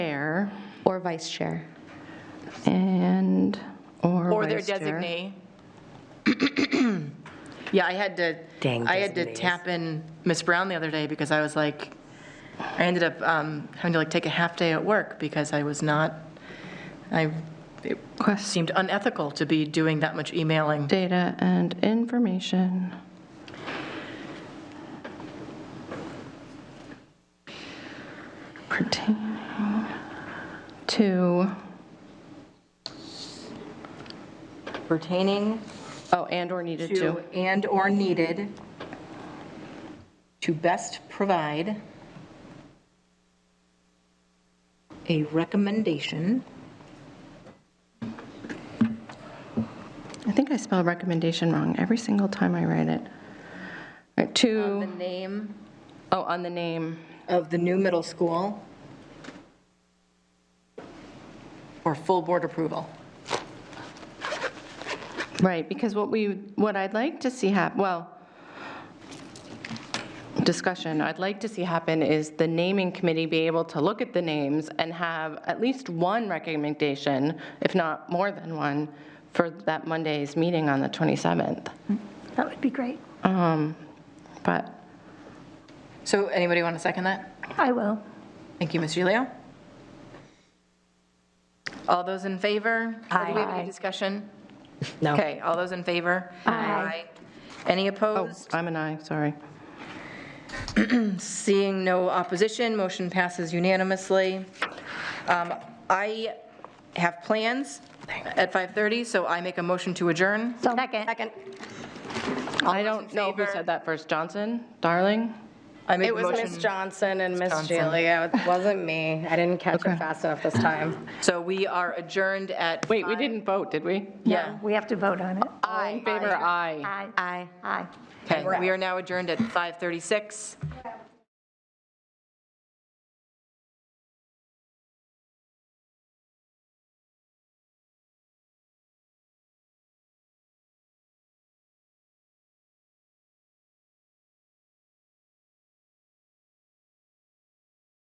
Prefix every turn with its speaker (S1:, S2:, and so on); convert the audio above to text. S1: vice chair. And, or.
S2: Or their
S1: vice chair.
S2: designee. Yeah, I had to,
S3: Dang
S2: I had to
S3: designees.
S2: tap in Miss Brown the other day because I was like, I ended up um, having to like take a half day at work because I was not, I, it
S1: Quest
S2: seemed unethical to be doing that much emailing.
S1: data and information. Pertaining to,
S2: Pertaining
S1: oh, and/or needed to.
S2: and/or needed to best provide a recommendation.
S1: I think I spelled recommendation wrong every single time I write it. Uh,
S2: The
S1: To,
S2: name
S1: oh, on the name.
S2: of the new middle school. For full board approval.
S1: Right, because what we, what I'd like to see hap, well, discussion, I'd like to see happen is the naming committee be able to look at the names and have at least one recommendation, if not more than one, for that Monday's meeting on the 27th.
S4: That would be great.
S1: But
S2: So anybody want to second that?
S4: I will.
S2: Thank you, Ms. Gilio. All those in favor? Or Do we have
S4: Aye.
S2: any discussion?
S3: No.
S2: Okay, all those in favor?
S4: Aye.
S2: Any
S1: Oh,
S2: opposed?
S1: I'm an aye, sorry.
S2: Seeing no opposition, motion passes unanimously. Um, I have plans at 5:30, so I make a motion to adjourn.
S4: So- Second.
S1: I don't know who
S2: favor?
S1: said that first, Johnson, Darling?
S2: I make
S5: It
S2: a
S5: was Miss
S2: motion.
S5: Johnson and Miss
S2: Johnson.
S5: Julia. It wasn't me. I didn't catch
S1: Okay.
S5: it fast enough this time.
S2: So we are adjourned at.
S1: Wait, we
S2: five-
S1: didn't vote, did we?
S2: Yeah.
S4: We have to vote on it.
S1: All in favor, aye.
S4: Aye. Aye.
S2: Okay, we are now adjourned at 5:36.